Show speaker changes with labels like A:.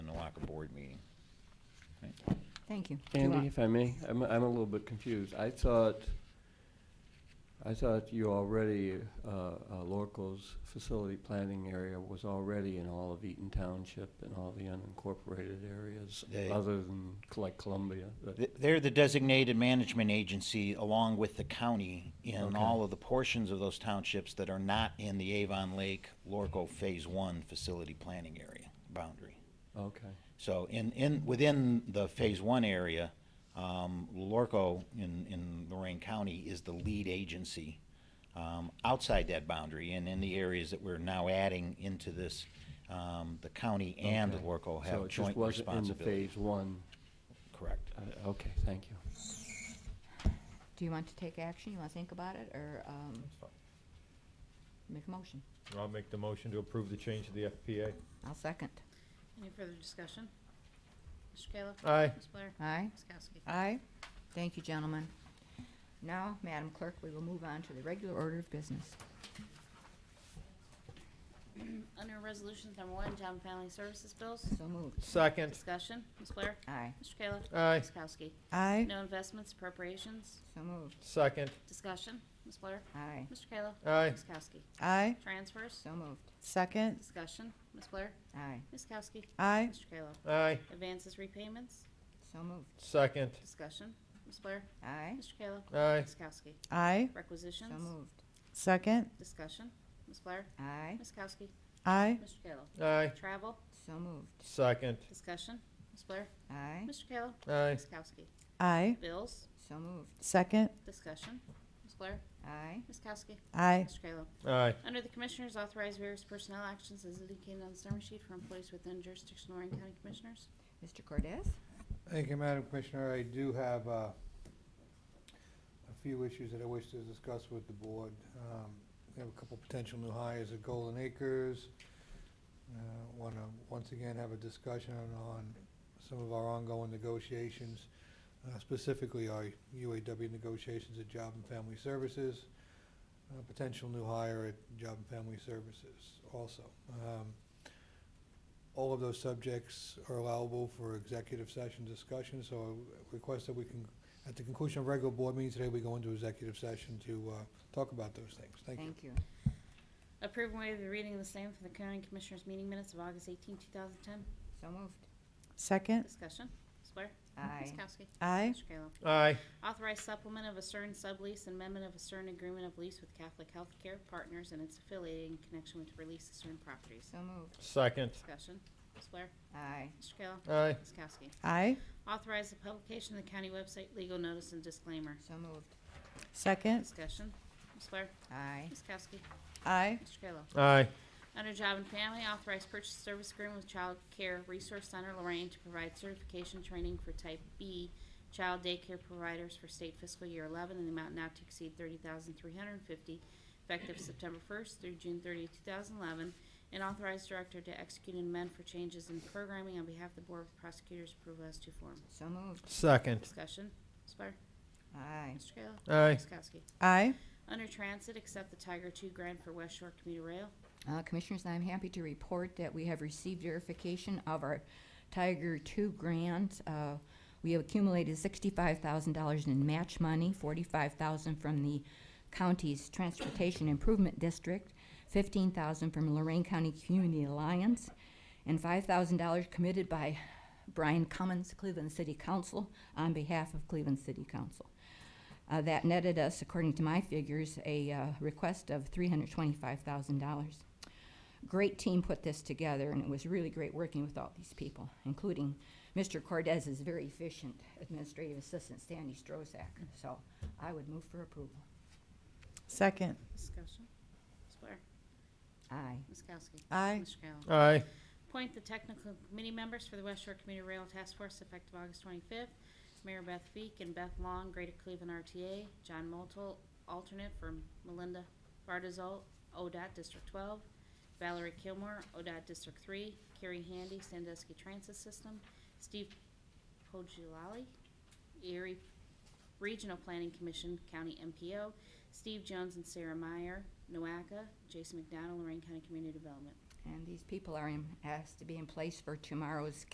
A: board meeting.
B: Thank you. Do you
C: Andy,
B: want-
C: if I may, I'm, I'm a little bit confused. I thought, I thought you already, uh, uh, Lorco's facility planning area was already in all of Eaton Township and all the unincorporated areas,
D: They-
C: other than like Columbia. but-
D: Th- They're the designated management agency along with the county in
C: Okay.
D: all of the portions of those townships that are not in the Avon Lake Lorco Phase One facility planning area boundary.
C: Okay,
D: So in, in, within the Phase One area, um, Lorco in, in Lorraine County is the lead agency, um, outside that boundary and in the areas that we're now adding into this, um, the county and
C: okay.
D: Lorco have joint
C: So it just wasn't in the
D: responsibility.
C: phase one.
D: Correct.
C: Uh, Okay, thank you.
B: Do you want to take action? You want to think about it or um, make a motion?
E: I'll make the motion to approve the change to the FPA.
B: I'll second.
F: Any further discussion? Mr. Kayla?
E: Aye.
F: Ms. Blair?
B: Aye?
F: Ms. Kowski?
B: Aye. Thank you, gentlemen. Now, Madam Clerk, we will move on to the regular order of business.
F: Under Resolutions Number One, Job and Family Services Bills,
B: So moved.
E: Second.
F: discussion, Ms. Blair?
B: Aye.
F: Mr. Kayla?
E: Aye.
F: Ms. Kowski?
B: Aye.
F: No investments, appropriations,
B: So moved.
E: Second.
F: discussion, Ms. Blair?
B: Aye.
F: Mr. Kayla?
E: Aye.
F: Ms. Kowski?
G: Aye.
F: Transfers,
B: So moved.
G: Second.
F: discussion, Ms. Blair?
B: Aye.
F: Ms. Kowski?
G: Aye.
F: Mr. Kayla?
E: Aye.
F: Advances, repayments,
B: So moved.
E: Second.
F: discussion, Ms. Blair?
B: Aye.
F: Mr. Kayla?
E: Aye.
F: Ms. Kowski?
G: Aye.
B: So
F: Requisitions,
B: moved.
G: Second.
F: discussion, Ms. Blair?
B: Aye.
F: Ms. Kowski?
G: Aye.
F: Mr. Kayla?
E: Aye.
F: Travel,
B: So moved.
E: Second.
F: discussion, Ms. Blair?
B: Aye.
F: Mr. Kayla?
E: Aye.
F: Ms. Kowski?
G: Aye.
F: Bills,
B: So moved.
G: Second.
F: Discussion. Ms. Blair?
B: Aye.
F: Ms. Kowski?
G: Aye.
F: Mr. Kayla?
E: Aye.
F: Under the Commissioners, authorize various personnel actions as indicated on the summary sheet for employees within jurisdiction of Lorraine County Commissioners.
B: Mr. Cordez?
H: Thank you, Madam Commissioner. I do have uh, a few issues that I wish to discuss with the board. Um, We have a couple potential new hires at Golden Acres. Want to, once again, have a discussion on some of our ongoing negotiations, uh, specifically our UAW negotiations at Job and Family Services, a potential new hire at Job and Family Services also. Um, all of those subjects are allowable for executive session discussion, so I request that we can, at the conclusion of regular board meeting today, we go into executive session to uh, talk about those things. Thank you.
B: Thank you.
F: Approve and waive the reading of the same for the County Commissioners meeting minutes of August 18, 2010.
B: So moved.
G: Second.
F: Discussion. Ms. Blair? Ms.
B: Aye.
F: Kowski?
G: Aye.
F: Mr. Kayla?
E: Aye.
F: Authorize supplement of a CERN sublease and amendment of a CERN agreement of lease with Catholic Health Care Partners and its affiliated in connection with release of certain properties.
B: So moved.
E: Second.
F: Discussion. Ms. Blair?
B: Aye.
F: Mr. Kayla?
E: Aye.
F: Ms. Kowski?
G: Aye.
F: Authorize the publication of the county website, legal notice and disclaimer.
B: So moved.
G: Second.
F: Discussion. Ms. Blair?
B: Aye.
F: Ms. Kowski?
G: Aye.
F: Mr. Kayla?
E: Aye.
F: Under Job and Family, authorize purchase service agreement with Child Care Resource Center Lorraine to provide certification training for Type B child daycare providers for state fiscal year 11 in the amount not to exceed 30350 effective September 1st through June 30, 2011, and authorize director to execute an amend for changes in programming on behalf of the Board with prosecutors approval as to form.
B: So moved.
E: Second.
F: Discussion. Ms. Blair?
B: Aye.
F: Mr. Kayla?
E: Aye.
F: Ms. Kowski?
G: Aye.
F: Under Transit, accept the Tiger Two grant for West Shore Commuter Rail.
B: Uh, Commissioners, I'm happy to report that we have received verification of our Tiger Two grant. Uh, We have accumulated sixty-five thousand dollars in match money, forty-five thousand from the county's Transportation Improvement District, fifteen thousand from Lorraine County Community Alliance, and five thousand dollars committed by Brian Cummins, Cleveland City Council, on behalf of Cleveland City Council. Uh, that netted us, according to my figures, a uh, request of $325,000. Great team put this together, and it was really great working with all these people, including Mr. Cordez's very efficient administrative assistant, Sandy Strozak. So I would move for approval.
G: Second.
F: Discussion. Ms. Blair?
B: Aye.
F: Ms. Kowski?
G: Aye.
F: Mr. Kayla?
E: Aye.
F: Appoint the technical committee members for the West Shore Commuter Rail Task Force effective August 25th. Mary Beth Feek and Beth Long, Greater Cleveland RTA. John Moultle, alternate for Melinda Bardazol, ODOT District 12. Valerie Kilmore, ODOT District 3. Carrie Handy, Sandusky Transit System. Steve Pogilali, Erie Regional Planning Commission, County MPO. Steve Jones and Sarah Meyer, NOACA. Jason McDonald, Lorraine County Community Development.
B: And these people are in- asked to be in place for tomorrow's